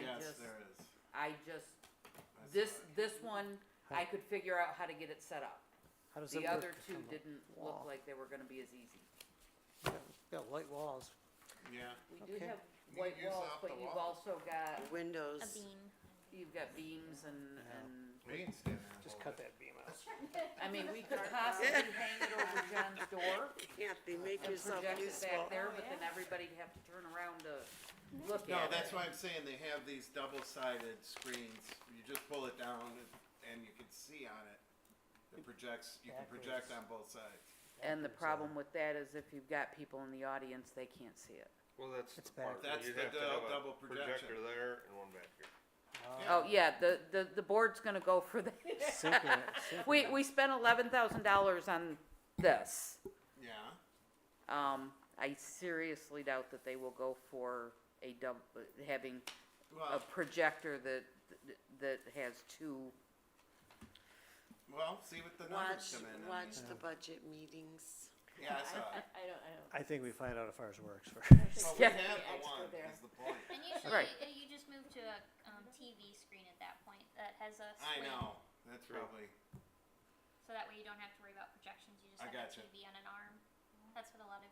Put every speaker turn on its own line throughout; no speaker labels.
this.
There is.
I just,
I saw
this,
it.
this one, I could figure out how to get it set up.
How does it
The
work?
other two
on the
didn't look
wall?
like they were gonna be as easy.
Got light walls.
Yeah,
We do
Okay.
have
You
white
use
walls,
up
but
the
you've
walls.
also got,
Windows.
A bean.
you've got beams and,
Yeah.
and,
we can stand there. and
Just
hold
cut
it.
that beam out.
I mean, we could possibly hang it over John's door
Can't be, make
and
yourself
project it
useful.
back there, but then everybody'd have to turn around to look at it.
No, that's why I'm saying they have these double-sided screens. You just pull it down and you can see on it. It projects, you can project on both sides.
And the problem with that is if you've got people in the audience, they can't see it.
Well, that's
It's
the part
bad.
where
That's
you'd
the
have to
dou-
have a
double
projector
projection.
there and one back here.
Yeah.
Oh, yeah, the, the, the board's gonna go for that.
Synchro-
We,
synchronous.
we spent eleven thousand dollars on this.
Yeah,
Um, I seriously doubt that they will go for a dub, having a
well,
projector that, that has two.
well, see what the numbers
Watch,
come in. I
watch
mean.
the budget meetings.
Yeah, I saw it.
I don't, I don't.
I think we find out if ours works first.
Well, we
Yeah.
have
Yeah,
the
it's
one,
good there.
is the point.
And usually
Right.
uh, you just move to a um, TV screen at that point that has a
I
slant,
know, that's
True.
probably,
So that way you don't have to worry about projections. You just
I
have
gotcha.
a TV on an arm. That's what a lot of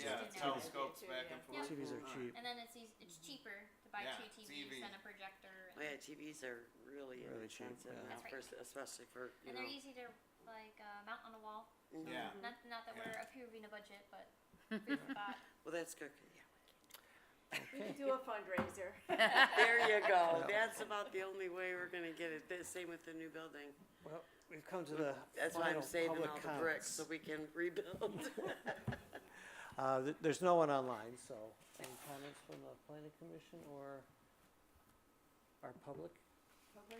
TVs
do
yeah,
are-
it
now.
telescopes back and
Yeah.
forth.
TVs are cheap.
And then it's eas it's cheaper to buy
Yeah,
two
it's
TVs
EV.
than a projector.
Oh, Yeah,
And,
TVs are really
Really cheap,
inexpensive
yeah.
now,
That's right.
for- especially for, you
and
know.
they're easy to like uh, mount on a wall.
mhm.
Yeah,
Not not that
Mm-hmm. Yeah.
we're approving a budget, but food for thought.
Mm-hmm. Well, that's good, yeah.
We could do a fundraiser.
There you go,
Yeah.
that's about the only way we're gonna get it, the same with the new building.
Well, we've come to the
That's why
final
I'm saving
public
all the
comments.
bricks, so we can rebuild.
Uh, th- there's no one online, so any comments from the planning commission or our public?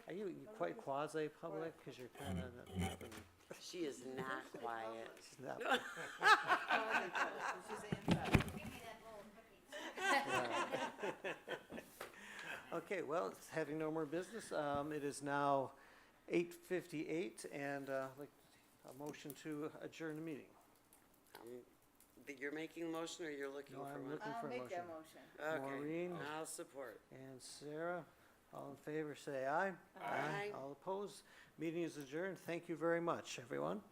Are you you quite quasi-public, cause you're kinda not- not in-
She is not quiet.
she's not- Okay, well, it's having no more business, um, it is now eight fifty-eight and, uh, like, a motion to adjourn the meeting.
Um, But you're making a motion or you're looking
No,
for
I'm
one?
looking for a
I'll make
motion.
that motion.
Okay,
Maureen?
I'll support.
And Sarah, all in favor, say aye.
Aye. Aye.
All opposed, meeting is adjourned, thank you very much, everyone.